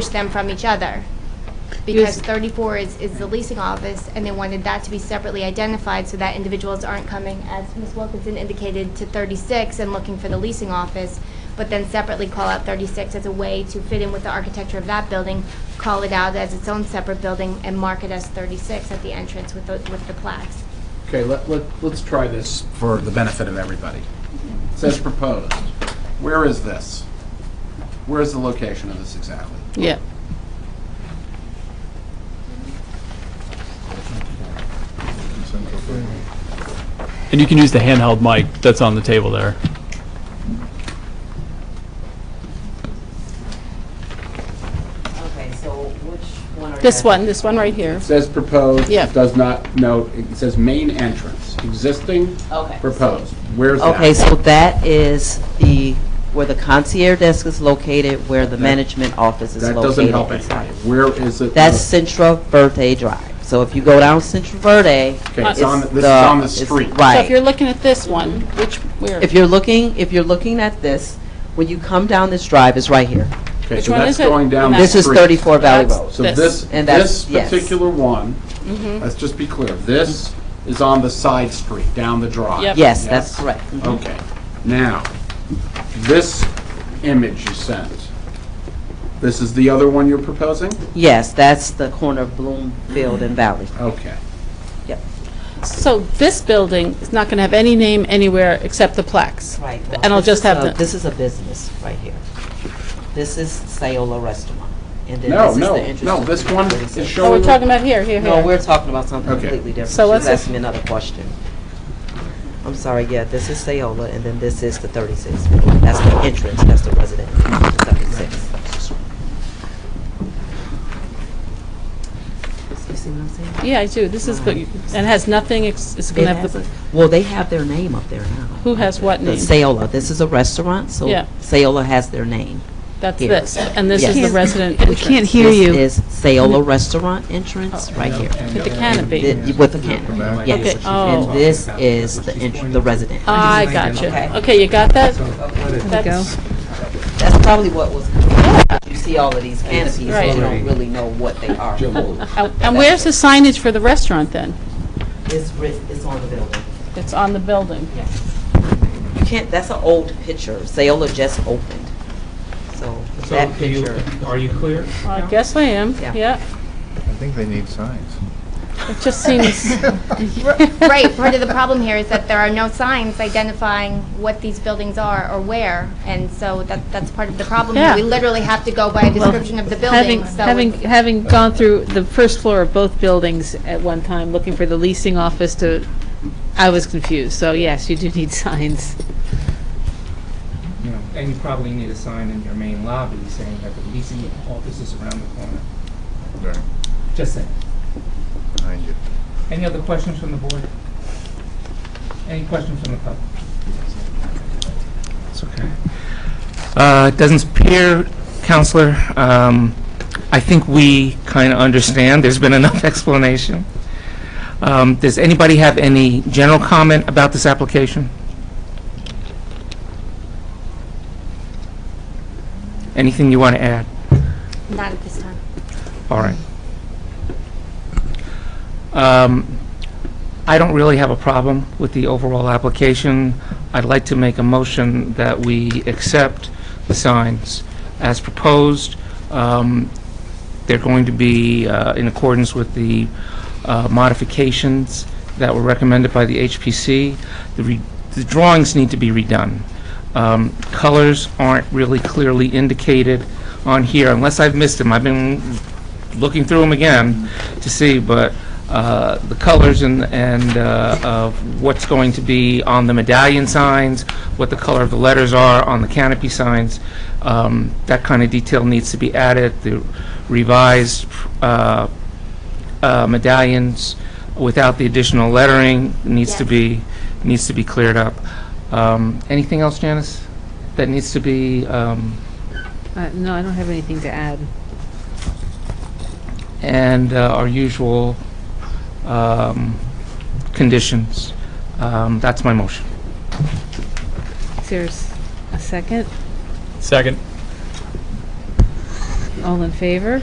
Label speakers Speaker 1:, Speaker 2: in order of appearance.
Speaker 1: distinguish them from each other. Because 34 is, is the leasing office, and they wanted that to be separately identified so that individuals aren't coming, as Ms. Wilkinson indicated, to 36 and looking for the leasing office, but then separately call out 36 as a way to fit in with the architecture of that building, call it out as its own separate building, and mark it as 36 at the entrance with the, with the plaques.
Speaker 2: Okay, let, let, let's try this for the benefit of everybody. It Says proposed. Where is this? Where is the location of this exactly?
Speaker 3: Yeah.
Speaker 4: And you can use the handheld mic that's on the table there.
Speaker 5: Okay, so which one are you?
Speaker 3: This one, this one right here.
Speaker 2: It Says proposed.
Speaker 3: Yeah.
Speaker 2: Does not note, it says main entrance, existing,
Speaker 5: Okay.
Speaker 2: proposed. Where's that?
Speaker 5: Okay, so that is the, where the concierge desk is located, where the management office is
Speaker 2: That
Speaker 5: located.
Speaker 2: doesn't help anybody. Where is it?
Speaker 5: That's Central Verde Drive. So if you go down Central Verde.
Speaker 2: Okay, it's
Speaker 3: it's
Speaker 2: on, the- this is on the
Speaker 5: it's-
Speaker 2: street.
Speaker 3: So if you're
Speaker 5: Right.
Speaker 3: looking at this one, which, where?
Speaker 5: If you're looking, if you're looking at this, when you come down this drive, it's right here.
Speaker 2: Okay,
Speaker 3: Which
Speaker 2: so
Speaker 3: one
Speaker 2: that's
Speaker 3: is it?
Speaker 2: going down the
Speaker 5: This is
Speaker 2: street.
Speaker 5: 34 Valley
Speaker 3: That's-
Speaker 5: Road.
Speaker 2: So
Speaker 3: This.
Speaker 2: this,
Speaker 5: And that's-
Speaker 2: this
Speaker 5: yes.
Speaker 2: particular one,
Speaker 3: Mm-hmm.
Speaker 2: let's just be clear, this is on the side street, down the drive.
Speaker 3: Yep.
Speaker 5: Yes, that's
Speaker 2: Yes.
Speaker 5: correct.
Speaker 2: Okay, now, this image you sent, this is the other one you're proposing?
Speaker 5: Yes, that's the corner of Bloomfield and Valley.
Speaker 2: Okay,
Speaker 5: Yep.
Speaker 3: So this building is not going to have any name anywhere except the plaques.
Speaker 5: Right. well,
Speaker 3: And I'll
Speaker 5: this
Speaker 3: just
Speaker 5: is
Speaker 3: have
Speaker 5: a-
Speaker 3: the.
Speaker 5: This is a business right here. This is Sayola Restaurant. and then
Speaker 2: no,
Speaker 5: this is the
Speaker 2: no,
Speaker 5: entrance
Speaker 2: no,
Speaker 5: to
Speaker 2: this one is
Speaker 5: 36.
Speaker 3: Oh, we're
Speaker 2: showing,
Speaker 3: talking about here, here,
Speaker 5: No,
Speaker 3: here.
Speaker 5: we're talking about something
Speaker 2: Okay.
Speaker 5: completely different.
Speaker 3: So what's
Speaker 5: She's
Speaker 3: this-
Speaker 5: asking me another question. I'm sorry, yeah, this is Sayola, and then this is the 36. building. That's the entrance, that's the resident, 36. You see what I'm saying?
Speaker 3: Yeah, I do. This is, the- and has nothing, ex- it's going
Speaker 5: It
Speaker 3: to have
Speaker 5: has
Speaker 3: the,
Speaker 5: a- Well, they have their name up there now.
Speaker 3: who has what
Speaker 5: The
Speaker 3: name?
Speaker 5: Sayola, this is a restaurant, so
Speaker 3: Yeah.
Speaker 5: Sayola has their name.
Speaker 3: That's
Speaker 5: here.
Speaker 3: this. And this is the
Speaker 5: Yes.
Speaker 3: resident entrance.
Speaker 6: Can't hear you.
Speaker 5: This is Sayola Restaurant entrance, right here.
Speaker 3: With Oh. the canopy.
Speaker 5: The- With the canopy,
Speaker 3: Okay,
Speaker 5: yes.
Speaker 3: oh. Uh,
Speaker 5: And this is the entr the resident.
Speaker 3: Ah, I got you.
Speaker 5: Okay.
Speaker 3: Okay, you got that?
Speaker 6: go.
Speaker 3: That's
Speaker 5: That's probably what was, you see all of these canopies, and
Speaker 3: Right.
Speaker 5: you don't really know what they are.
Speaker 3: And and where's the signage for the restaurant then?
Speaker 5: It's writ, it's on the building.
Speaker 3: It's on the building.
Speaker 5: You can't, that's an old picture, Sayola just opened, so
Speaker 7: So
Speaker 5: that
Speaker 7: do you,
Speaker 5: picture.
Speaker 7: are you clear?
Speaker 3: I guess I am,
Speaker 5: Yeah.
Speaker 3: yeah.
Speaker 8: I think they need signs.
Speaker 3: It just seems,
Speaker 1: Right, part of the problem here is that there are no signs identifying what these buildings are or where, and so that, that's part of the problem.
Speaker 3: Yeah.
Speaker 1: We literally have to go by a description of the
Speaker 6: Having,
Speaker 1: building, so.
Speaker 6: having,
Speaker 1: it's-
Speaker 6: having gone through the first floor of both buildings at one time, looking for the leasing office to, I was confused. So yes, you do need signs.
Speaker 7: You know, and you probably need a sign in your main lobby saying that the leasing office is around the corner.
Speaker 8: Right,
Speaker 7: Just saying.
Speaker 8: behind you.
Speaker 7: Any other questions from the board? Any questions from the public? It's okay. Uh, it doesn't appear, Counselor, um, I think we kind of understand. There's been enough explanation. Um, does anybody have any general comment about this application? Anything you want to add?
Speaker 1: Not at this time.
Speaker 7: All right. Um, I don't really have a problem with the overall application. I'd like to make a motion that we accept the signs as proposed. Um, They're going to be uh, in accordance with the uh, modifications that were recommended by the HPC. The re- The drawings need to be redone. Um, Colors aren't really clearly indicated on here, unless I've missed them. I've been looking through them again to see, but uh, the colors and, and uh, of what's going to be on the medallion signs, what the color of the letters are on the canopy signs, um, that kind of detail needs to be added, the revised uh, uh, medallions without the additional lettering needs to
Speaker 1: Yes.
Speaker 7: be, needs to be cleared up. Um, Anything else, Janice, that needs to be, um,
Speaker 6: Uh, No, I don't have anything to add.
Speaker 7: and uh, our usual um, conditions. Um, That's my motion.
Speaker 6: Is there s- a second?
Speaker 4: Second.
Speaker 3: All in favor?